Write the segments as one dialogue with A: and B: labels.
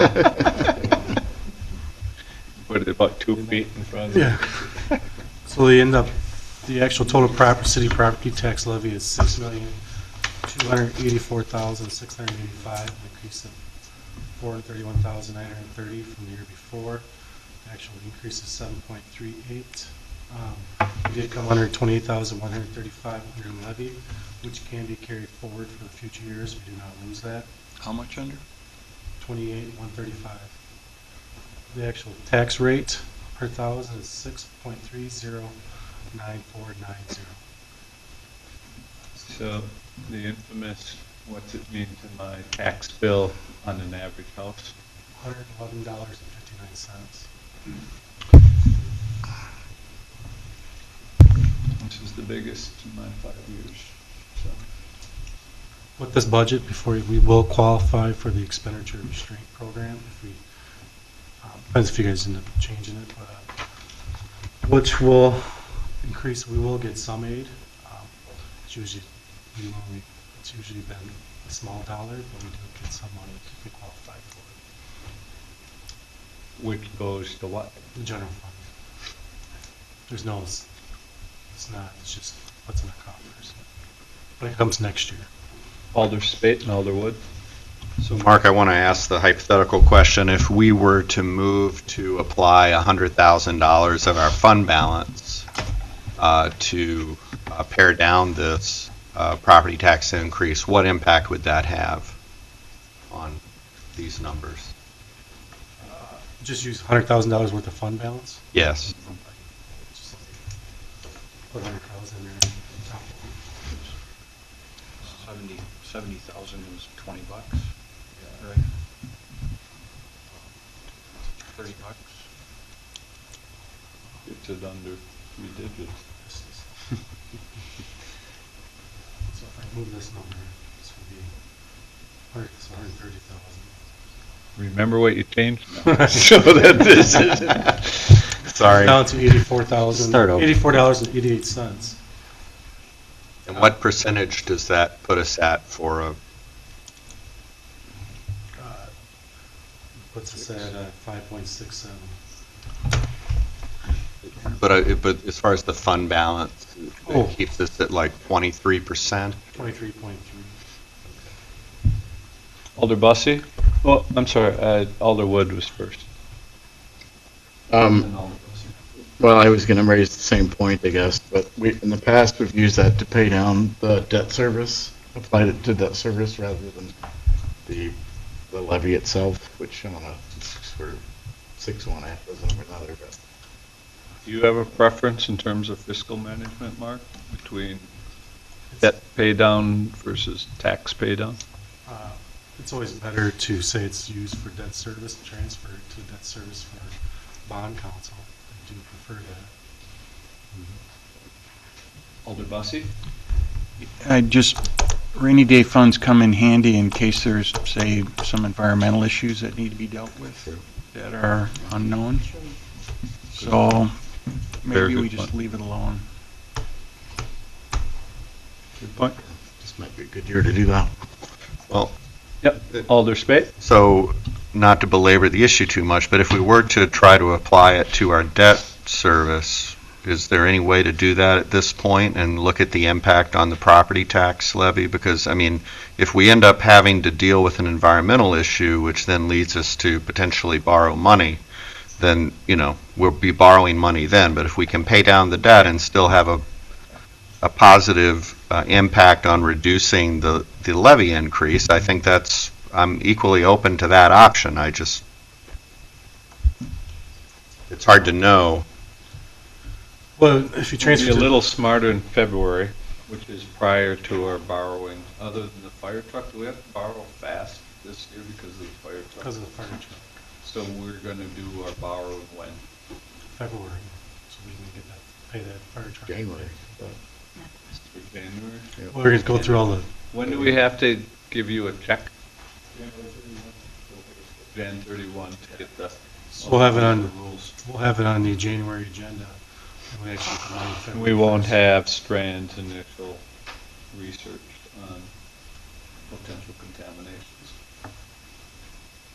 A: What, about two feet in front of it?
B: Yeah. So they end up, the actual total prop, city property tax levy is six million, two hundred eighty-four thousand, six hundred eighty-five, an increase of four hundred thirty-one thousand, nine hundred thirty from the year before. Actual increase is seven point three eight. Um, We did come under twenty-eight thousand, one hundred thirty-five under levy, which can be carried forward for the future years. We do not lose that.
C: How much under?
B: Twenty-eight one thirty-five. The actual tax rate per thousand is six point three zero nine four nine zero.
A: So the infamous, what's it mean to my tax bill on an average house?
B: Hundred and eleven dollars and fifty-nine cents.
A: This is the biggest in my five years, so.
B: With this budget, before, we will qualify for the expenditure restraint program if we, um, depends if you guys end up changing it, but, uh, which will increase, we will get some aid. Um, It's usually, we only, it's usually been a small dollar, but we do get some money if we qualify for it.
A: Which goes to what?
B: The general fund. There's no, it's it's not, it's just what's in the coffers. But it comes next year.
A: Alder Spate and Alder Wood?
D: So Mark, I want to ask the hypothetical question. If we were to move to apply $100,000 of our fund balance uh, to uh, pare down this uh, property tax increase, what impact would that have on these numbers?
B: Just use hundred thousand dollars worth of fund balance.
D: Yes.
B: Just Put hundred thousand there.
C: Seventy, seventy thousand was twenty bucks, right? Thirty bucks.
A: It's at under three digits.
B: So if I move this number, this would be hundred, it's hundred thirty thousand.
A: Remember what you changed now. So that this is.
D: Sorry.
B: Now it's eighty-four thousand,
D: Start over.
B: eighty-four dollars and eighty-eight cents.
D: And what percentage does that put us at for a,
B: Uh, Puts us at Uh, five point six seven.
D: but, I- but as far as the fund balance,
B: Oh.
D: it keeps us at like 23%?
B: Twenty-three point three.
A: Alder Bussey? Well, I'm sorry, uh, Alder Wood was first.
E: Um, well, I was gonna raise the same point, I guess, but we, in the past, we've used that to pay down the debt service, applied it to debt service rather than the, the levy itself, which I don't know, six or six one half dozen or another, but.
A: Do you have a preference in terms of fiscal management, Mark, between debt pay down versus tax pay down?
B: Uh, It's always better to say it's used for debt service, transfer it to debt service for bond counsel. I do prefer that.
A: Alder Bussey?
C: I just, rainy day funds come in handy in case there's, say, some environmental issues that need to be dealt with that are unknown. So
A: Very good
C: maybe we just
A: point.
C: leave it alone.
A: Good point.
E: This might be a good year to do that.
D: Well,
A: Yep,
B: Uh,
A: Alder Spate?
D: So, not to belabor the issue too much, but if we were to try to apply it to our debt service, is there any way to do that at this point and look at the impact on the property tax levy? Because, I mean, if we end up having to deal with an environmental issue, which then leads us to potentially borrow money, then, you know, we'll be borrowing money then. But if we can pay down the debt and still have a, a positive uh, impact on reducing the, the levy increase, I think that's I'm equally open to that option, I just, it's hard to know.
B: Well, if you
A: We'll be
B: transfer
A: a
B: to
A: little smarter in February, which is prior to our borrowing. Other than the fire truck, do we have to borrow fast this year because of the fire truck?
B: because of the fire truck,
A: So we're gonna do our borrowing when?
B: February, so we can get that, pay that fire truck.
E: January.
A: For January?
B: We're going to go through all the,
A: When do we have to give you a check? Jan thirty-one to get the.
B: we'll have it
A: the
B: on,
A: Rules.
B: we'll have it on the January agenda. and we actually come out in
A: And
B: February
A: we won't
B: first.
A: have Strand's initial research on potential contaminations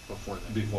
E: Before
A: before